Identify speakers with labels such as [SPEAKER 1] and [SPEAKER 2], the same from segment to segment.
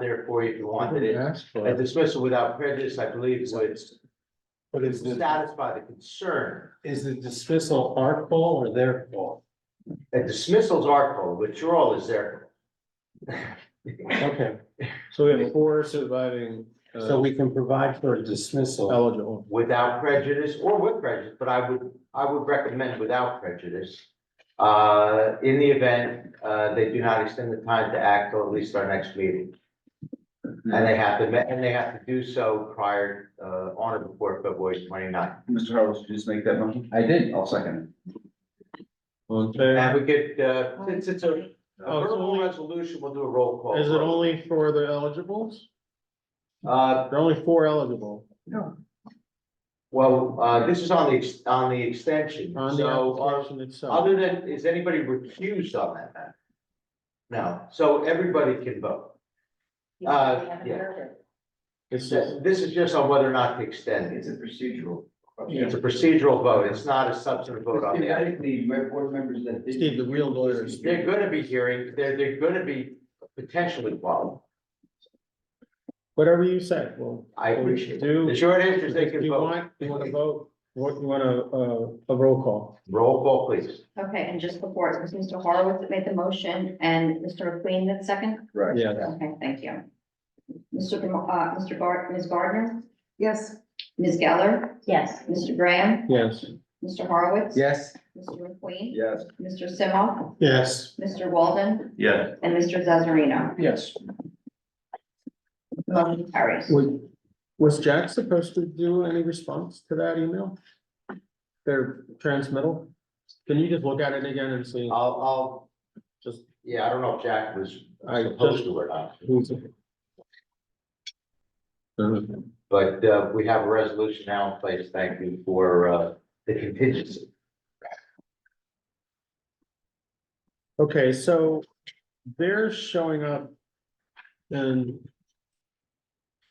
[SPEAKER 1] there for you if you wanted it.
[SPEAKER 2] Asked for
[SPEAKER 1] And
[SPEAKER 2] it.
[SPEAKER 1] dismissal without prejudice, I believe, would
[SPEAKER 3] But is the,
[SPEAKER 1] satisfy the concern.
[SPEAKER 3] is the dismissal our call or their call?
[SPEAKER 1] And dismissal's our call, withdrawal is their.
[SPEAKER 3] Okay,
[SPEAKER 2] So we have four surviving uh,
[SPEAKER 3] so we can provide for a dismissal.
[SPEAKER 2] eligible.
[SPEAKER 1] without prejudice or with prejudice, but I would, I would recommend without prejudice. Uh, in the event, uh, they do not extend the time to act till at least our next meeting.
[SPEAKER 2] Mm-hmm.
[SPEAKER 1] And they have to, ma- and they have to do so prior, uh, on or before February 29th.
[SPEAKER 4] Mr. Harrell, did you just make that motion? I did. I'll second
[SPEAKER 2] All in favor?
[SPEAKER 1] And we could, uh, since it's a a
[SPEAKER 2] Oh, it's
[SPEAKER 1] verbal
[SPEAKER 2] only-
[SPEAKER 1] resolution, we'll do a roll call.
[SPEAKER 2] Is it only for the eligibles?
[SPEAKER 1] Uh,
[SPEAKER 2] There are only four eligible.
[SPEAKER 1] well, uh, this is on the, ex- on the extension,
[SPEAKER 2] On the
[SPEAKER 1] so, uh,
[SPEAKER 2] application itself.
[SPEAKER 1] Other than, is anybody recused on that matter? No, so everybody can vote. Uh, yeah.
[SPEAKER 2] It's just,
[SPEAKER 1] This is just on whether or not to extend it.
[SPEAKER 4] It's a procedural.
[SPEAKER 1] It's a procedural vote. It's not a substantive vote on the.
[SPEAKER 4] Theoretically, my board members that did.
[SPEAKER 2] Steve, the real lawyers.
[SPEAKER 1] They're gonna be hearing, they're, they're gonna be potentially followed.
[SPEAKER 2] Whatever you say, well.
[SPEAKER 1] I appreciate it.
[SPEAKER 2] Do-
[SPEAKER 1] The short answer is they
[SPEAKER 2] Do
[SPEAKER 1] can
[SPEAKER 2] you
[SPEAKER 1] vote.
[SPEAKER 2] want, you wanna vote, what, you wanna, uh, a roll call?
[SPEAKER 1] Roll call, please.
[SPEAKER 5] Okay, and just before, it was Mr. Horowitz that made the motion and Mr. McLean that second?
[SPEAKER 4] Right.
[SPEAKER 2] Yeah.
[SPEAKER 5] Okay, thank you. Mr. Gam- uh, Mr. Gar, Ms. Gardner,
[SPEAKER 6] Yes.
[SPEAKER 5] Ms. Geller,
[SPEAKER 6] Yes.
[SPEAKER 5] Mr. Graham,
[SPEAKER 2] Yes.
[SPEAKER 5] Mr. Horowitz.
[SPEAKER 4] Yes.
[SPEAKER 5] Mr. McLean.
[SPEAKER 4] Yes.
[SPEAKER 5] Mr. Simoff,
[SPEAKER 2] Yes.
[SPEAKER 5] Mr. Walden,
[SPEAKER 4] Yes.
[SPEAKER 5] and Mr. Zazarino.
[SPEAKER 3] Yes.
[SPEAKER 5] Motion carries.
[SPEAKER 2] Was, was Jack supposed to do any response to that email? Their transmittal? Can you just look at it again and see?
[SPEAKER 1] I'll, I'll,
[SPEAKER 2] Just-
[SPEAKER 1] yeah, I don't know if Jack was
[SPEAKER 2] I
[SPEAKER 1] supposed
[SPEAKER 2] just-
[SPEAKER 1] to or not,
[SPEAKER 2] who's- Uh,
[SPEAKER 1] but, uh, we have a resolution now in place. Thank you for, uh, the contingency.
[SPEAKER 2] Okay, so they're showing up in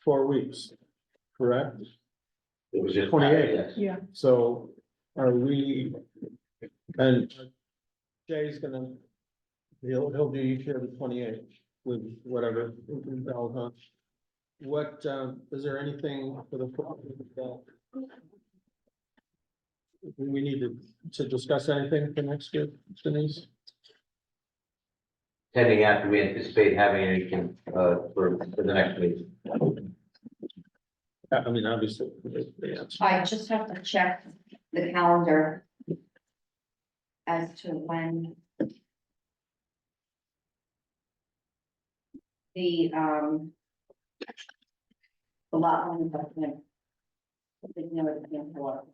[SPEAKER 2] four weeks, correct?
[SPEAKER 1] It was just. uh,
[SPEAKER 2] 28.
[SPEAKER 1] Yes.
[SPEAKER 2] So are we, and Jay's gonna, he'll, he'll do each year the twenty-eight with whatever. I'll, uh, What, um, is there anything for the? that We need to, to discuss anything for next year, Denise?
[SPEAKER 1] pending after we anticipate having it in, uh, for, for the next meeting.
[SPEAKER 2] I I mean, obviously, yeah.
[SPEAKER 5] I just have to check the calendar as to when the, um, the lot line adjustment. You know, it's been for,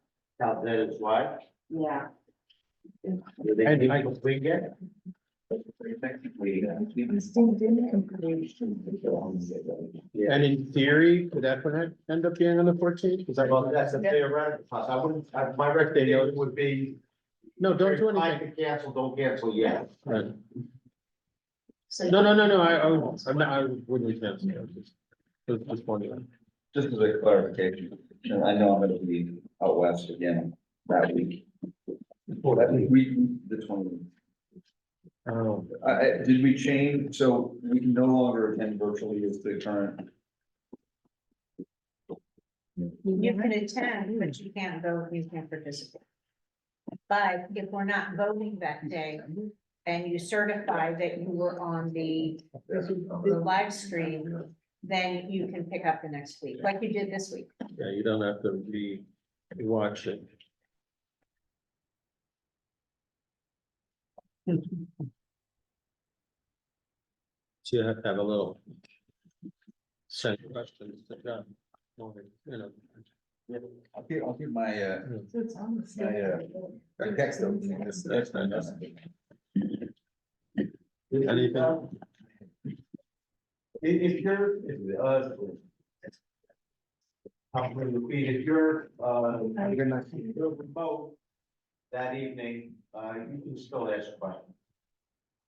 [SPEAKER 1] Now, that is why.
[SPEAKER 5] Yeah,
[SPEAKER 2] And I-
[SPEAKER 1] We get.
[SPEAKER 4] Technically.
[SPEAKER 2] And in theory, could that one end up being on the fourteenth? Is that,
[SPEAKER 1] Well, that's a theoretical, cost. I wouldn't, I- my recommendation would be.
[SPEAKER 2] no, don't do
[SPEAKER 1] if I
[SPEAKER 2] anything.
[SPEAKER 1] can Cancel, don't cancel yet.
[SPEAKER 2] Right. No, no, no, no, I, I, won't. I'm not, I wouldn't cancel. it. Just- Just, just wondering.
[SPEAKER 4] Just as a clarification, and I know I'm gonna be out west again that week. That week, we, the twenty.
[SPEAKER 2] Oh,
[SPEAKER 4] I, I, did we change, so we can no longer attend virtually as the current,
[SPEAKER 6] You can attend, but you can't vote, you can't participate. But if we're not voting that day and you certify that you were on the, the live stream, then you can pick up the next week, like you did this week.
[SPEAKER 2] yeah, you don't have to be watching. So you have to have a little. Send questions to John. You know.
[SPEAKER 4] I'll give, I'll give my, uh, my, uh, I text them.
[SPEAKER 2] That's not necessary. Anything?
[SPEAKER 1] If, if you're, if, uh. Councilman Lapid, if you're, uh, you're not, if you're remote that evening, uh, you can still ask questions.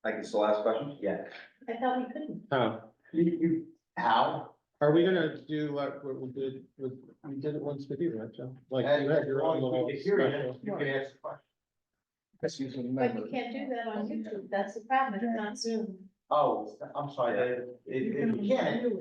[SPEAKER 4] I can still ask questions?
[SPEAKER 1] Yeah.
[SPEAKER 6] I thought we couldn't.
[SPEAKER 2] Oh,
[SPEAKER 1] You, you, how?
[SPEAKER 2] are we gonna do like what we did with, we did it once with you, right, Joe? Like you had your own little special.
[SPEAKER 1] You can ask questions.
[SPEAKER 6] But you can't do that on YouTube, that's the problem, it's not Zoom.
[SPEAKER 1] Oh, I'm sorry, it, it, you can